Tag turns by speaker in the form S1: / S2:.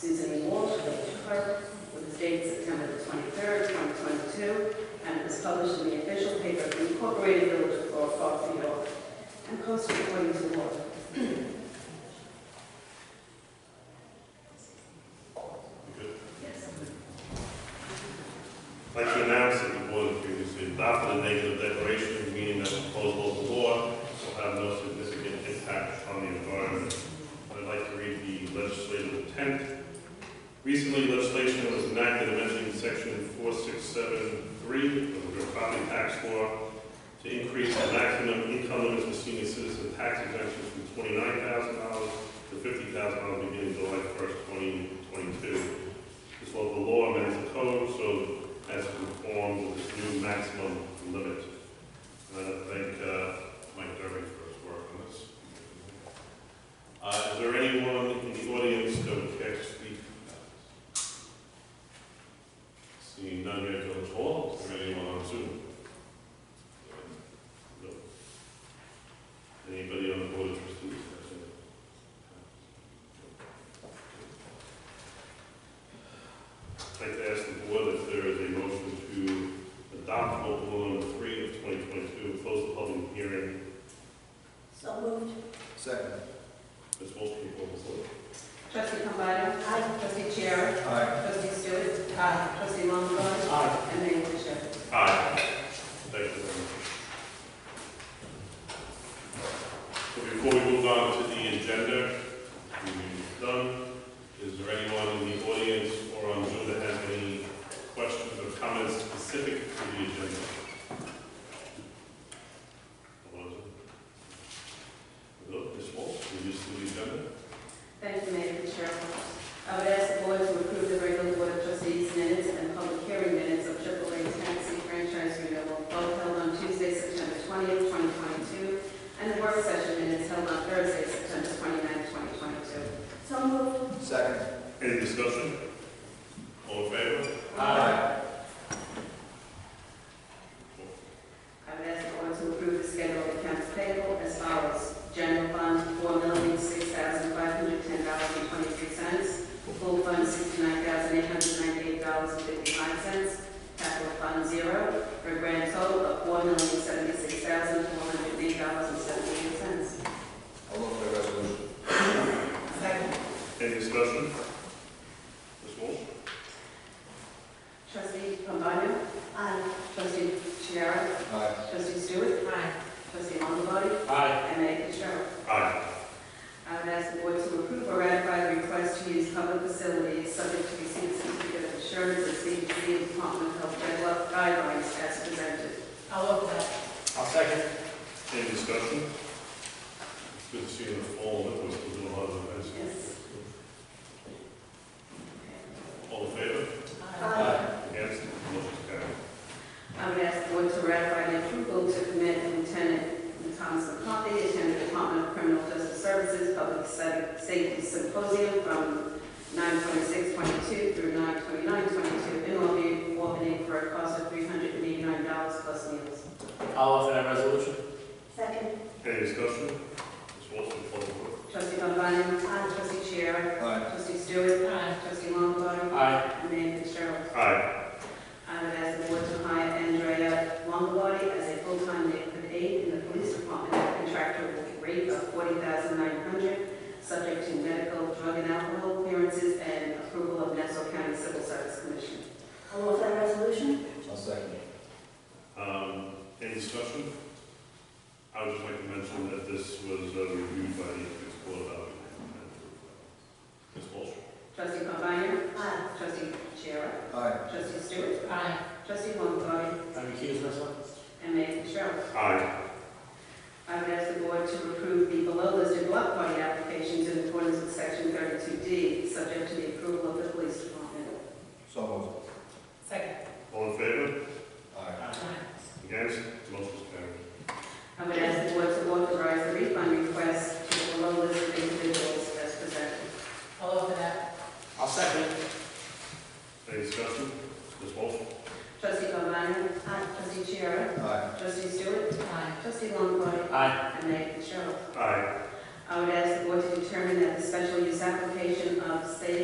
S1: Susan Walsh, village clerk, with the date September the 23rd, 2022, and it was published in the official paper of the Incorporated Village of Laurel Park, New York, and posted according to law. Yes.
S2: I'd like to announce that the board has previously adopted a negative declaration, meaning that proposed local law will have no significant impact on the environment. I'd like to read the legislative intent. Recently, legislation that was enacted amending section four six seven three of the real property tax law to increase the maximum income limit for senior citizen tax exemption from twenty-nine thousand dollars to fifty thousand dollars beginning July first, twenty twenty-two. This local law amends the code so as to conform with this new maximum limit. And I thank uh, Mike Derby for his work on this. Uh, Is there anyone in the audience that would care to speak? Seeing none here at Village Hall, is there anyone on Zoom? No. Anybody on the board of trustees? I'd like to ask the board if there is a motion to adopt local law number three of 2022, close the public hearing.
S3: So moved.
S4: Second.
S2: Ms. Wolfski, what was it?
S1: Trustee Cambado. Aye. Trustee Chair.
S4: Aye.
S1: Trustee Stewart. Aye. Trustee Longbody.
S4: Aye.
S1: And Mayor Fisher.
S2: Aye. Thank you very much. So before we move on to the agenda, we've done, is there anyone in the audience or on Zoom that has any questions or comments specific to the agenda? Hello? Hello, Ms. Walsh, can you just do the agenda?
S1: Thank you, Mayor and Chair. I would ask the board to approve the regular board of trustees minutes and public hearing minutes of AAA Taxi Franchise Renewal, both held on Tuesday, September 20th, 2022, and the work session minutes held on Thursday, September 29th, 2022.
S3: So moved.
S4: Second.
S2: Any discussion? All in favor?
S4: Aye.
S1: I would ask the board to approve the schedule of accounts payable as follows. General fund, four million, six thousand, five hundred, ten dollars and twenty-three cents. Full fund, sixty-nine thousand, eight hundred, ninety-eight dollars and fifty-five cents. Capital fund, zero, for a grand total of four million, seventy-six thousand, four hundred, eight dollars and seventy-eight cents.
S4: I'll look for the resolution.
S1: Second.
S2: Any discussion? Ms. Walsh?
S1: Trustee Pombana. Aye. Trustee Chiara.
S4: Aye.
S1: Trustee Stewart. Aye. Trustee Longbody.
S4: Aye.
S1: And Mayor Fitzgerald.
S2: Aye.
S1: I would ask the board to approve or ratify the request to use public facilities subject to receipt of certificate of insurance and CDC and Department of Health guide- guidelines as presented.
S3: I'll look that.
S4: I'll second.
S2: Any discussion? It's good to see you in the fall, that was, we're doing a lot of events.
S1: Yes.
S2: All in favor?
S4: Aye.
S2: Against? Motion carried.
S1: I would ask the board to ratify the approval to commit Lieutenant Thomas McCarthy, attendant Department of Criminal Justice Services Public Sa- Safety Symposium from 9/26/22 through 9/29/22 in Albany, Albany for a cost of $389 plus meals.
S4: I'll offer that resolution.
S3: Second.
S2: Any discussion? Ms. Walsh, will you call the vote?
S1: Trustee Pambana? Aye. Trustee Chair?
S4: Aye.
S1: Trustee Stewart? Aye. Trustee Longbody?
S4: Aye.
S1: And Mayor Fitzgerald?
S2: Aye.
S1: I would ask the board to hire Andrea Longbody as a full-time neighborhood aide in the police department at a contractual rate of $40,900, subject to medical, drug, and alcohol clearances and approval of Nassau County Civil Service Commission.
S3: I'll look that resolution.
S4: I'll second.
S2: Um, any discussion? I would just like to mention that this was uh, reviewed by the ethics board of Alvin. Ms. Walsh?
S1: Trustee Pambana?
S3: Aye.
S1: Trustee Chair?
S4: Aye.
S1: Trustee Stewart?
S3: Aye.
S1: Trustee Longbody?
S4: I'm recusing myself.
S1: And Mayor Fitzgerald?
S2: Aye.
S1: I would ask the board to approve the below-listed block party applications in accordance with section 32D, subject to the approval of the police department.
S4: So moved.
S3: Second.
S2: All in favor?
S4: Aye.
S2: Against? Motion carried.
S1: I would ask the board to authorize the refund request to the below-listed individuals as presented.
S3: I'll look that.
S4: I'll second.
S2: Any discussion? Ms. Walsh?
S1: Trustee Pambana? Aye. Trustee Chiara?
S4: Aye.
S1: Trustee Stewart?
S3: Aye.
S1: Trustee Longbody?
S4: Aye.
S1: And Mayor Fitzgerald?
S2: Aye.
S1: I would ask the board to determine that the special use application of state